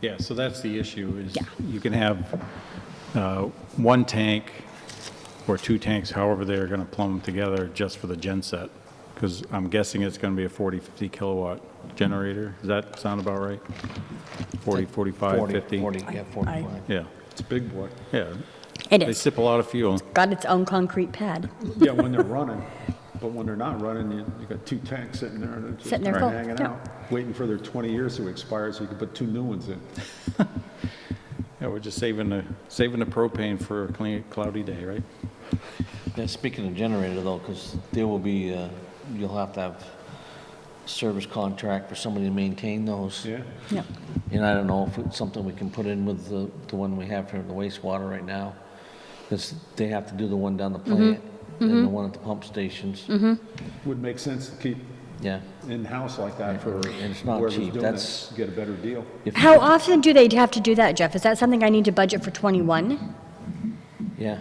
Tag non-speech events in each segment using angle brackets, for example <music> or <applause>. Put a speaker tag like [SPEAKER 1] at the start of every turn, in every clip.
[SPEAKER 1] Yeah, so that's the issue, is
[SPEAKER 2] Yeah.
[SPEAKER 1] you can have uh, one tank or two tanks, however they're going to plumb them together, just for the gen set, because I'm guessing it's going to be a 40, 50 kilowatt generator. Does that sound about right? 40, 45,
[SPEAKER 3] 40,
[SPEAKER 1] 50?
[SPEAKER 3] 40, yeah, 45.
[SPEAKER 1] Yeah,
[SPEAKER 4] It's a big boy.
[SPEAKER 1] yeah.
[SPEAKER 2] It
[SPEAKER 1] They
[SPEAKER 2] is.
[SPEAKER 1] sip a lot of fuel.
[SPEAKER 2] Got its own concrete pad.
[SPEAKER 4] Yeah, when they're running, but when they're not running, you, you got two tanks sitting there and they're
[SPEAKER 2] Sitting
[SPEAKER 4] just
[SPEAKER 2] there full,
[SPEAKER 4] hanging
[SPEAKER 2] yeah.
[SPEAKER 4] out, waiting for their 20 years to expire so you can put two new ones in.
[SPEAKER 1] <laughs> Yeah, we're just saving the, saving the propane for a clean, cloudy day, right?
[SPEAKER 3] Yeah, speaking of generator though, because there will be, uh, you'll have to have service contract for somebody to maintain those.
[SPEAKER 4] Yeah?
[SPEAKER 2] No.
[SPEAKER 3] And I don't know if it's something we can put in with the, the one we have for the wastewater right now. Because they have to do the one down the
[SPEAKER 2] Mm-hmm.
[SPEAKER 3] plant and the one at the pump stations.
[SPEAKER 4] Would make sense to keep
[SPEAKER 3] Yeah.
[SPEAKER 4] in-house like that for
[SPEAKER 3] And it's not
[SPEAKER 4] whoever's
[SPEAKER 3] cheap,
[SPEAKER 4] doing
[SPEAKER 3] that's-
[SPEAKER 4] it, get a better deal.
[SPEAKER 3] If-
[SPEAKER 2] How often do they have to do that, Jeff? Is that something I need to budget for 21?
[SPEAKER 3] Yeah.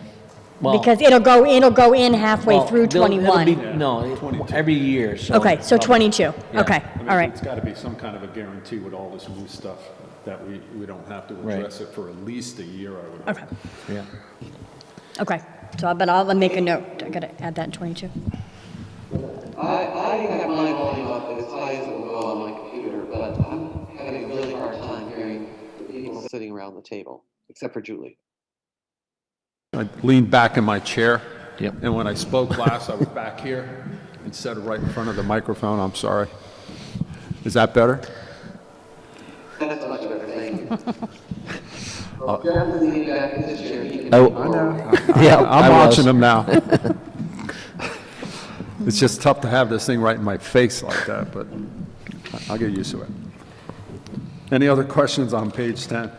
[SPEAKER 3] Well,
[SPEAKER 2] Because it'll go, it'll go in halfway
[SPEAKER 3] well,
[SPEAKER 2] through
[SPEAKER 3] they'll- it'll be-
[SPEAKER 2] 21.
[SPEAKER 3] No, it- every year, so.
[SPEAKER 2] Okay, so 22,
[SPEAKER 3] Yeah.
[SPEAKER 2] okay,
[SPEAKER 4] I mean,
[SPEAKER 2] all right.
[SPEAKER 4] It's got to be some kind of a guarantee with all this new stuff that we, we don't have to
[SPEAKER 3] Right.
[SPEAKER 4] address it for at least a year, I would.
[SPEAKER 2] Okay,
[SPEAKER 3] Yeah.
[SPEAKER 2] okay. So, I- but I'll make a note. I gotta add that in 22.
[SPEAKER 5] I, I have my volume up as high as it will go on my computer, but I'm having a really hard time hearing the people sitting around the table, except for Julie.
[SPEAKER 4] I leaned back in my chair.
[SPEAKER 3] Yep.
[SPEAKER 4] And when I spoke last, I was back here instead of right in front of the microphone. I'm sorry. Is that better?
[SPEAKER 5] That's much better, thank you. Well, Jeff is leaning back in his chair, he can.
[SPEAKER 6] Oh.
[SPEAKER 5] I know.
[SPEAKER 6] Yeah, I
[SPEAKER 4] <laughs> I'm
[SPEAKER 6] was.
[SPEAKER 4] watching them now. <laughs> It's just tough to have this thing right in my face like that, but I'll get used to it. Any other questions on page 10?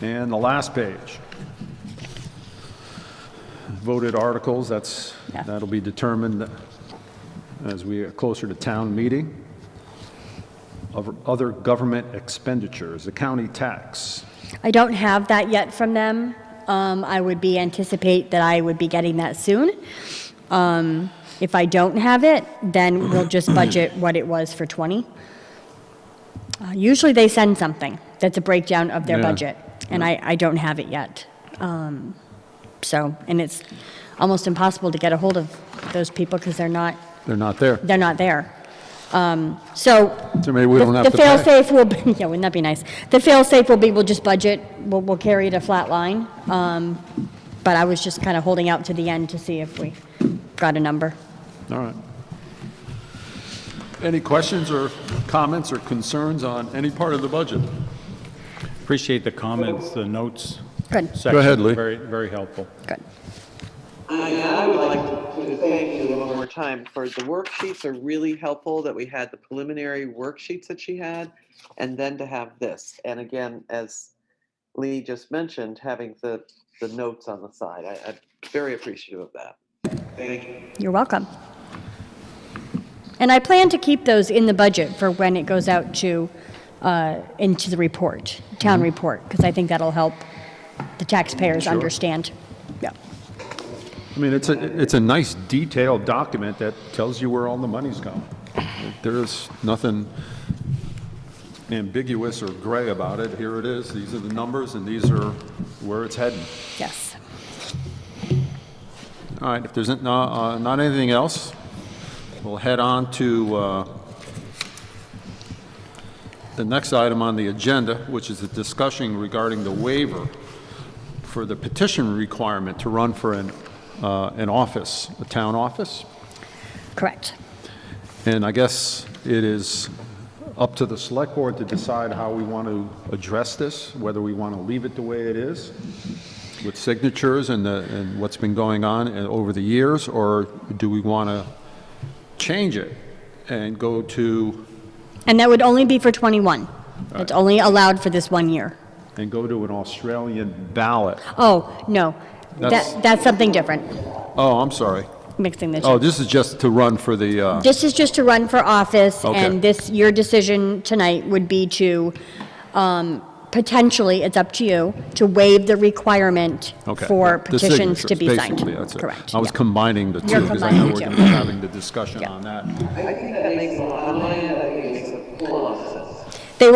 [SPEAKER 4] And the last page. Voted articles, that's,
[SPEAKER 2] Yeah.
[SPEAKER 4] that'll be determined as we get closer to town meeting. Of Other government expenditures, the county tax.
[SPEAKER 2] I don't have that yet from them. Um, I would be, anticipate that I would be getting that soon. Um, If I don't have it, then we'll
[SPEAKER 4] <clears throat>
[SPEAKER 2] just budget what it was for 20. Uh, Usually they send something that's a breakdown of their
[SPEAKER 4] Yeah.
[SPEAKER 2] budget, and I, I don't have it yet. Um, So, and it's almost impossible to get a hold of those people because they're not,
[SPEAKER 4] They're not there.
[SPEAKER 2] they're not there. Um, So
[SPEAKER 4] So maybe we
[SPEAKER 2] the-
[SPEAKER 4] don't have to
[SPEAKER 2] The
[SPEAKER 4] pay.
[SPEAKER 2] fail-safe will, be <laughs> yeah, wouldn't that be nice? The fail-safe will be, we'll just budget, we'll, we'll carry it a flat line. Um, But I was just kind of holding out to the end to see if we got a number.
[SPEAKER 4] All right. Any questions or comments or concerns on any part of the budget?
[SPEAKER 1] Appreciate the comments, the notes
[SPEAKER 2] Good,
[SPEAKER 1] section.
[SPEAKER 4] ahead, Lee.
[SPEAKER 1] Very, very helpful.
[SPEAKER 2] good.
[SPEAKER 5] I, I would like to thank Julie one more time for the worksheets are really helpful that we had the preliminary worksheets that she had. And then to have this. And again, as Lee just mentioned, having the, the notes on the side. I, I'm very appreciative of that. Thank you.
[SPEAKER 2] You're welcome. And I plan to keep those in the budget for when it goes out to, uh, into the report, town
[SPEAKER 4] Mm-hmm.
[SPEAKER 2] report, because I think that'll help the taxpayers understand. Yeah,
[SPEAKER 4] I mean, it's a, it's a nice detailed document that tells you where all the money's going. There is nothing ambiguous or gray about it. Here it is, these are the numbers, and these are where it's heading.
[SPEAKER 2] yes.
[SPEAKER 4] All right, if there's not, uh, not anything else, we'll head on to uh, the next item on the agenda, which is a discussion regarding the waiver for the petition requirement to run for an, uh, an office, a town office.
[SPEAKER 2] Correct.
[SPEAKER 4] And I guess it is up to the select board to decide how we want to address this, whether we want to leave it the way it is with signatures and the, and what's been going on and over the years, or do we want to change it and go to,
[SPEAKER 2] And that would only be for 21. It's only allowed for this one year.
[SPEAKER 4] and go to an Australian ballot?
[SPEAKER 2] Oh, no.
[SPEAKER 4] That's-
[SPEAKER 2] That, that's something different,
[SPEAKER 4] Oh, I'm sorry.
[SPEAKER 2] mixing the
[SPEAKER 4] Oh,
[SPEAKER 2] two.
[SPEAKER 4] this is just to run for the, uh,
[SPEAKER 2] This is just to run for office,
[SPEAKER 4] Okay.
[SPEAKER 2] and this, your decision tonight would be to, um, potentially, it's up to you, to waive the requirement
[SPEAKER 4] okay.
[SPEAKER 2] for
[SPEAKER 4] The
[SPEAKER 2] petitions to
[SPEAKER 4] signatures,
[SPEAKER 2] be signed.
[SPEAKER 4] basically, that's it.
[SPEAKER 2] Correct.
[SPEAKER 4] I was
[SPEAKER 2] yeah.
[SPEAKER 4] combining the 2
[SPEAKER 2] You're
[SPEAKER 4] because I
[SPEAKER 2] combining
[SPEAKER 4] know
[SPEAKER 2] the
[SPEAKER 4] we're
[SPEAKER 2] two.
[SPEAKER 4] going to be having the discussion
[SPEAKER 2] Yeah.
[SPEAKER 4] on that.
[SPEAKER 5] I think that makes a lot of money, I think it makes a whole lot of sense.